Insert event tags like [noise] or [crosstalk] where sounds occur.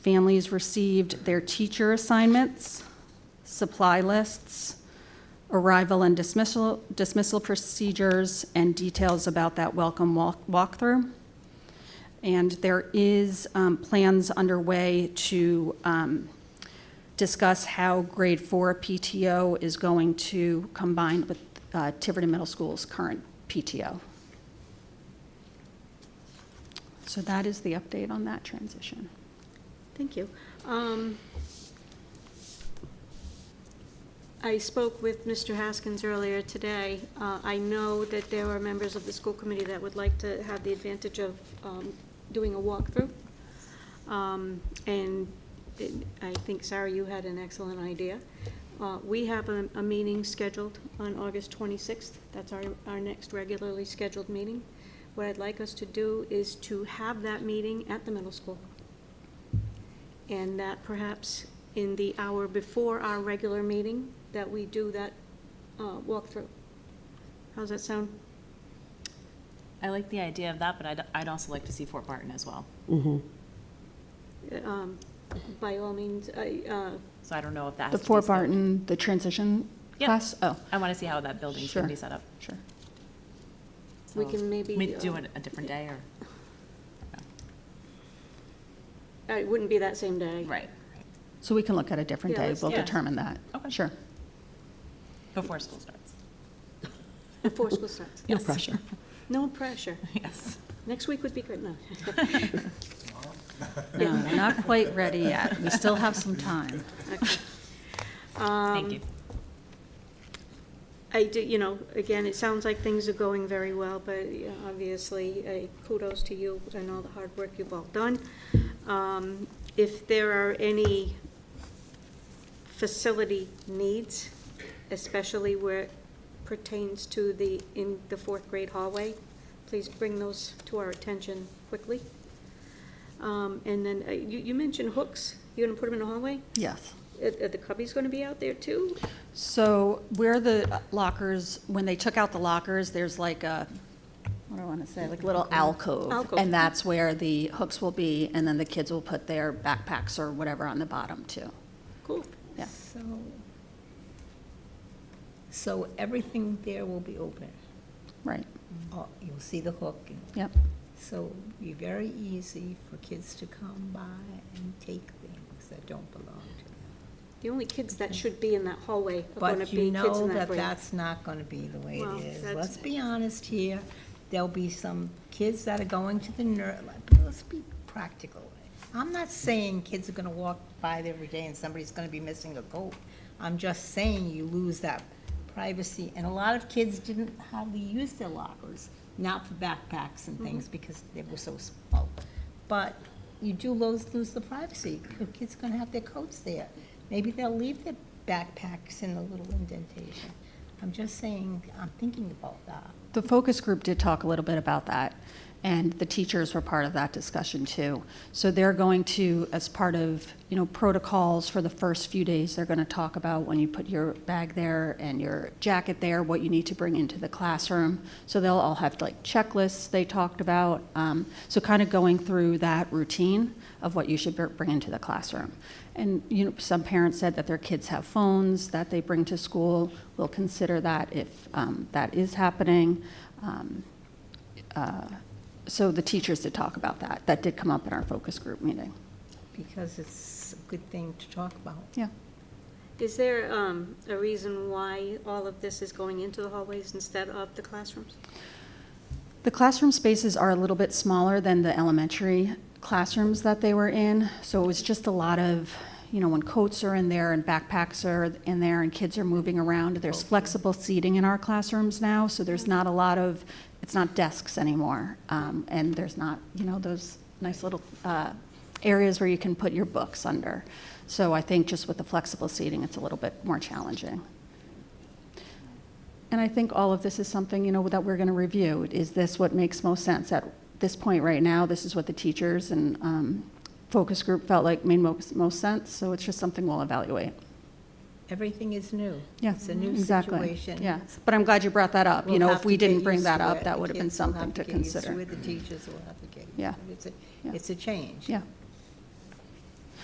Families received their teacher assignments, supply lists, arrival and dismissal, dismissal procedures, and details about that welcome walk walkthrough. And there is um, plans underway to um, discuss how grade four PTO is going to combine with uh, Tiverton Middle School's current PTO. So that is the update on that transition. Thank you. Um, I spoke with Mr. Haskins earlier today. Uh, I know that there are members of the school committee that would like to have the advantage of um, doing a walkthrough. Um, And it- I think, Sarah, you had an excellent idea. Uh, We have a a meeting scheduled on August 26th. That's our our next regularly scheduled meeting. What I'd like us to do is to have that meeting at the middle school and that perhaps in the hour before our regular meeting, that we do that uh, walkthrough. How's that sound? I like the idea of that, but I'd, I'd also like to see Fort Barton as well. Um, By all means, I, uh, So I don't know if that has The to be. Fort set- Barton, the transition Yeah. class? Oh, I want to see how that building's Sure. going to be set up. sure. we So can maybe. We do uh, it a different day or, uh, It wouldn't be that same day. right, So we can look at a different Yeah, day. let's- We'll yeah. determine that. Okay. Sure. before school starts. Before school starts. No pressure. No pressure. [laughs] Yes. Next week would be good, no. [laughs] No, we're not quite ready yet. We still have some time. Um, Thank you. I do, you know, again, it sounds like things are going very well, but you know, obviously, uh, kudos to you and all the hard work you've all done. Um, If there are any facility needs, especially where it pertains to the, in the fourth grade hallway, please bring those to our attention quickly. Um, And then, uh, you, you mentioned hooks, you're gonna put them in the hallway? [laughs] Yes. Are are the cubbies gonna be out there too? So where the lockers, when they took out the lockers, there's like a, what do I want to say, like a little alcove. Alcove. And that's where the hooks will be, and then the kids will put their backpacks or whatever on the bottom too. Cool. Yeah. So, so everything there will be open. Right, Oh, You'll see the hook. and- yep. So it'll be very easy for kids to come by and take things that don't belong to them. The only kids that should be in that hallway are going But to you be kids know in that that grade. that's not going to be the way Well, it is. that's- Let's be honest here. There'll be some kids that are going to the nurse. let's be practical. I'm not saying kids are going to walk by there every day and somebody's going to be missing a coat. I'm just saying you lose that privacy. And a lot of kids didn't hardly use their lockers, not for backpacks and things Mm-hmm. because they were so small. But you do lose, lose the privacy. Your kids are gonna have their coats there. Maybe they'll leave their backpacks in a little indentation. I'm just saying, I'm thinking about that. The focus group did talk a little bit about that, and the teachers were part of that discussion too. So they're going to, as part of, you know, protocols for the first few days, they're going to talk about when you put your bag there and your jacket there, what you need to bring into the classroom. So they'll all have like checklists they talked about, um, so kind of going through that routine of what you should br- bring into the classroom. And, you know, some parents said that their kids have phones that they bring to school. We'll consider that if um, that is happening. Um, uh, So the teachers did talk about that. That did come up in our focus group meeting. Because it's a good thing to talk about. Yeah. Is there um, a reason why all of this is going into the hallways instead of the classrooms? The classroom spaces are a little bit smaller than the elementary classrooms that they were in, so it was just a lot of, you know, when coats are in there and backpacks are in there and kids are moving around, there's flexible seating in our classrooms now, so there's not a lot of, it's not desks anymore, um, and there's not, you know, those nice little uh, areas where you can put your books under. So I think just with the flexible seating, it's a little bit more challenging. And I think all of this is something, you know, that we're going to review. Is this what makes most sense at this point right now? This is what the teachers and um, focus group felt like made most, most sense, so it's just something we'll evaluate. Everything is new. Yeah, It's a new exactly. situation. Yeah, but I'm glad you brought that up. You We'll know, have if to we get didn't bring used that to up, it. that The would have been kids will something have to get used consider. it. The teachers will have to get used Yeah. to it. It's a- Yeah. It's a change. Yeah.